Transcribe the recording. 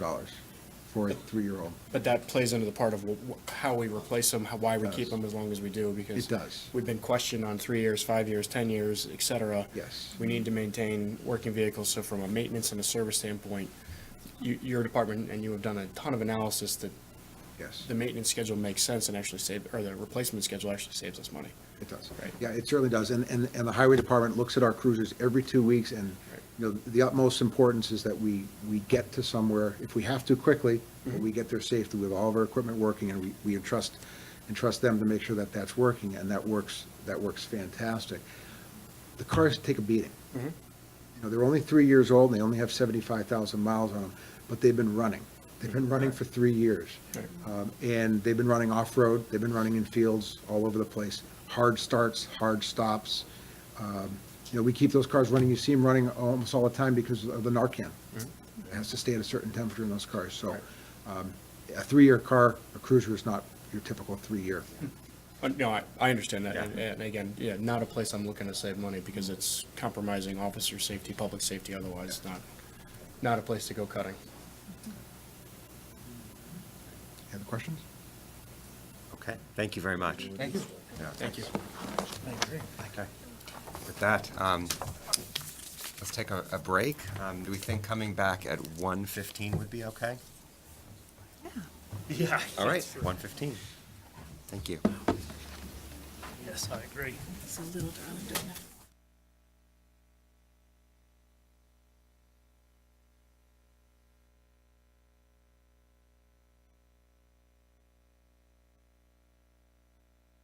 dollars for a three-year-old. But that plays into the part of wh- wh- how we replace them, how- why we keep Does. them as long as we do, because. It does. We've been questioned on three years, five years, 10 years, et cetera. Yes. We need to maintain working vehicles, so from a maintenance and a service standpoint, you, your department, and you have done a ton of analysis that Yes, the maintenance schedule makes sense and actually save, or the replacement schedule actually saves us money. it does. Right. Yeah, it certainly does. And, and, and the highway department looks at our cruisers every two weeks and, Right. you know, the utmost importance is that we, we get to somewhere, if we have to quickly, but we get there safely with all of our equipment working and we, we entrust, entrust them to make sure that that's working and that works, that works fantastic. The cars take a beating. You know, they're only three years old, and they only have 75,000 miles on them, but they've been running. They've been running for three years. Right. Um, And they've been running off-road, they've been running in fields all over the place, hard starts, hard stops. Um, You know, we keep those cars running, you see them running almost all the time because of the Narcan. It has to stay at a certain temperature in those cars, so um, a three-year car, a cruiser is not your typical three-year. Uh, No, I, I understand that, and and again, yeah, not a place I'm looking to save money, because it's compromising officer safety, public safety otherwise, not, not a place to go cutting. Any other questions? Okay, thank you very much. Thank you. Thank you. Okay. With that, um, let's take a a break. Um, Do we think coming back at 1:15 would be okay? Yeah. All right, 1:15. Thank you. Yes, I agree. It's a little darling, don't you?